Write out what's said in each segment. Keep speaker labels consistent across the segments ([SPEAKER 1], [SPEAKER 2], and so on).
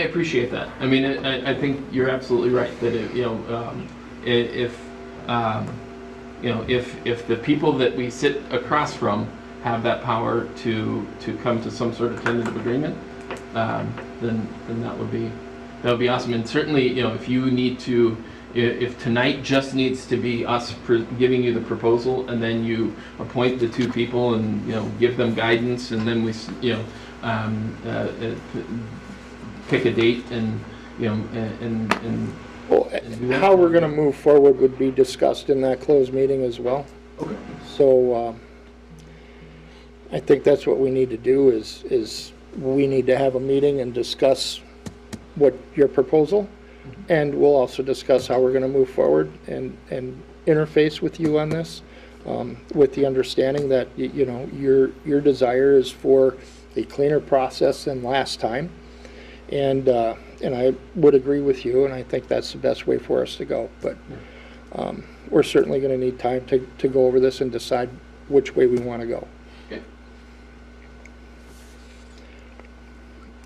[SPEAKER 1] I appreciate that. I mean, I, I- I think you're absolutely right that it, you know um, i- if um, you know if if the people that we sit across from have that power to to come to some sort of tentative agreement, um, then then that would be that would be awesome. And certainly, you know, if you need to. i- If tonight just needs to be us pr- giving you the proposal, and then you appoint the two people, and you know give them guidance, and then we, s- you know, um, uh, uh, pick a date and, you know, and, and- and,
[SPEAKER 2] Well, How we're going to move forward would be discussed in that closed meeting as well.
[SPEAKER 1] Okay.
[SPEAKER 2] So um, I think that's what we need to do is, is we need to have a meeting and discuss what your proposal, and we'll also discuss how we're going to move forward and, and interface with you on this, um, with the understanding that, y- you know, your, your desire is for a cleaner process than last time. And, uh, and I would agree with you, and I think that's the best way for us to go. But um, we're certainly going to need time to, to go over this and decide which way we want to go.
[SPEAKER 1] Okay.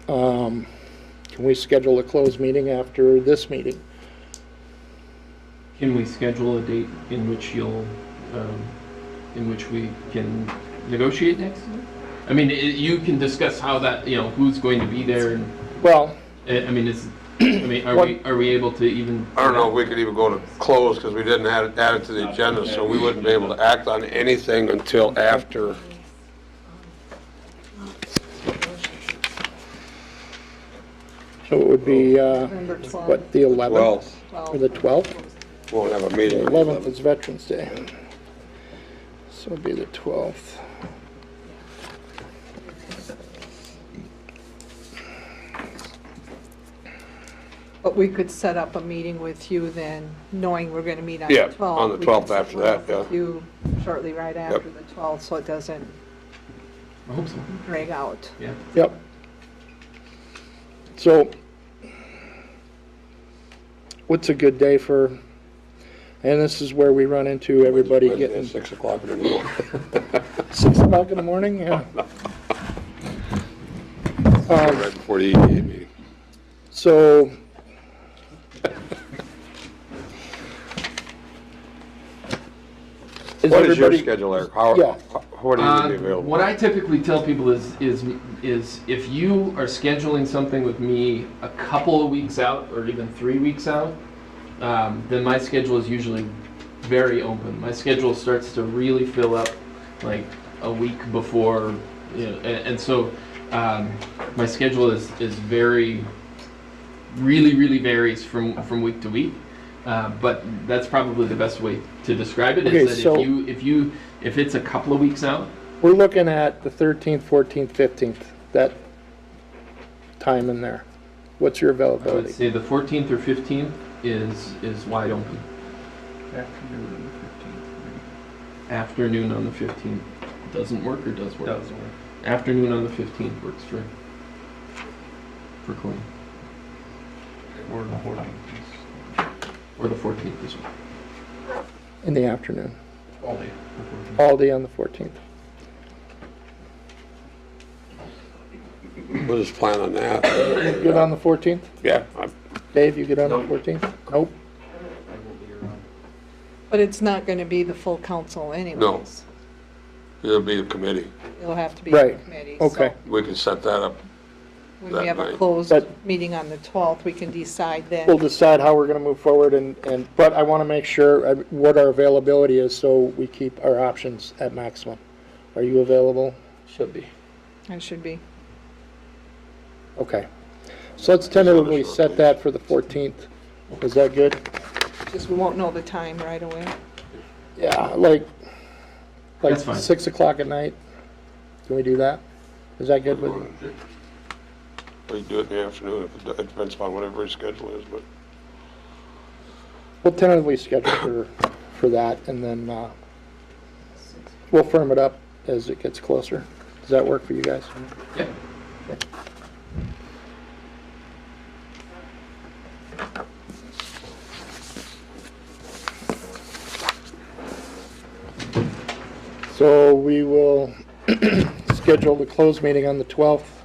[SPEAKER 2] Um, Can we schedule a closed meeting after this meeting?
[SPEAKER 1] can we schedule a date in which you'll, um, in which we can negotiate next year? I mean, i- you can discuss how that, you know, who's going to be there and, eh,
[SPEAKER 2] Well,
[SPEAKER 1] I I mean, is, I mean, are we, are we able to even?
[SPEAKER 3] I don't know if we could even go to close because we didn't add it, add it to the agenda, so we wouldn't be able to act on anything until after.
[SPEAKER 2] so it would be, uh,
[SPEAKER 4] November 12th.
[SPEAKER 2] what, the 11th?
[SPEAKER 3] Well,
[SPEAKER 2] Or the 12th?
[SPEAKER 3] we won't have a
[SPEAKER 2] The
[SPEAKER 3] meeting.
[SPEAKER 2] 11th is Veterans Day. So it'd be the 12th.
[SPEAKER 4] But we could set up a meeting with you then, knowing we're going to meet on the
[SPEAKER 3] Yeah,
[SPEAKER 4] 12th.
[SPEAKER 3] on the
[SPEAKER 4] We could
[SPEAKER 3] 12th
[SPEAKER 4] set
[SPEAKER 3] after
[SPEAKER 4] one
[SPEAKER 3] that,
[SPEAKER 4] up with
[SPEAKER 3] yeah.
[SPEAKER 4] You shortly right after the 12th, so it doesn't
[SPEAKER 1] I hope so,
[SPEAKER 4] drag out.
[SPEAKER 1] yeah.
[SPEAKER 2] Yep. So, what's a good day for, and this is where we run into everybody
[SPEAKER 3] Wednesday at
[SPEAKER 2] getting
[SPEAKER 3] Six o'clock in the morning.
[SPEAKER 2] six o'clock in the morning, yeah. Um,
[SPEAKER 3] Right before the EDA meeting.
[SPEAKER 2] So, is
[SPEAKER 3] What is your
[SPEAKER 2] everybody,
[SPEAKER 3] schedule, Eric? How,
[SPEAKER 2] Yeah.
[SPEAKER 3] wh- what are you
[SPEAKER 1] Uh,
[SPEAKER 3] gonna be available?
[SPEAKER 1] What I typically tell people is, is, is if you are scheduling something with me a couple of weeks out or even three weeks out, um, then my schedule is usually very open. My schedule starts to really fill up like a week before, you know, and, and so um, my schedule is, is very, really, really varies from, from week to week. Uh, but that's probably the best way to describe it. Is
[SPEAKER 2] Okay,
[SPEAKER 1] that
[SPEAKER 2] so-
[SPEAKER 1] if you if you if it's a couple of weeks out,
[SPEAKER 2] we're looking at the 13th, 14th, 15th, that time in there. What's your
[SPEAKER 1] I would
[SPEAKER 2] availability?
[SPEAKER 1] say the 14th or 15th is, is wide open. Afternoon on the 15th. Doesn't work or does work?
[SPEAKER 5] Does work.
[SPEAKER 1] Afternoon on the 15th works for, for Colleen,
[SPEAKER 5] Or the 14th.
[SPEAKER 1] or the 14th as well.
[SPEAKER 2] In the afternoon,
[SPEAKER 5] All day.
[SPEAKER 2] all day on the 14th.
[SPEAKER 3] We'll just plan on that.
[SPEAKER 2] Good on the 14th?
[SPEAKER 3] Yeah, I-
[SPEAKER 2] Dave, you get on the
[SPEAKER 5] Nope.
[SPEAKER 2] 14th? Nope.
[SPEAKER 5] I will be around.
[SPEAKER 4] But it's not going to be the full council anyways.
[SPEAKER 3] it'll be a committee.
[SPEAKER 4] It'll have to be a
[SPEAKER 2] Right.
[SPEAKER 4] committee. so
[SPEAKER 2] Okay.
[SPEAKER 3] We can set that up.
[SPEAKER 4] When we have
[SPEAKER 3] That
[SPEAKER 4] a
[SPEAKER 3] night.
[SPEAKER 4] closed
[SPEAKER 2] But-
[SPEAKER 4] meeting on the 12th, we can decide
[SPEAKER 2] We'll
[SPEAKER 4] then.
[SPEAKER 2] decide how we're going to move forward and, and, but I want to make sure uh, what our availability is so we keep our options at maximum. Are you available? Should be.
[SPEAKER 4] I should be.
[SPEAKER 2] Okay. So let's tentatively set that for the 14th. Is that good?
[SPEAKER 4] Just we won't know the time right away.
[SPEAKER 2] Yeah, like, like
[SPEAKER 1] That's fine.
[SPEAKER 2] 6 o'clock at night? Can we do that? Is that good with you?
[SPEAKER 3] We can do it in the afternoon. if It it depends upon whatever his schedule is, but
[SPEAKER 2] We'll tentatively schedule for, for that and then, uh, we'll firm it up as it gets closer. Does that work for you guys?
[SPEAKER 1] Yeah.
[SPEAKER 2] So we will schedule the closed meeting on the 12th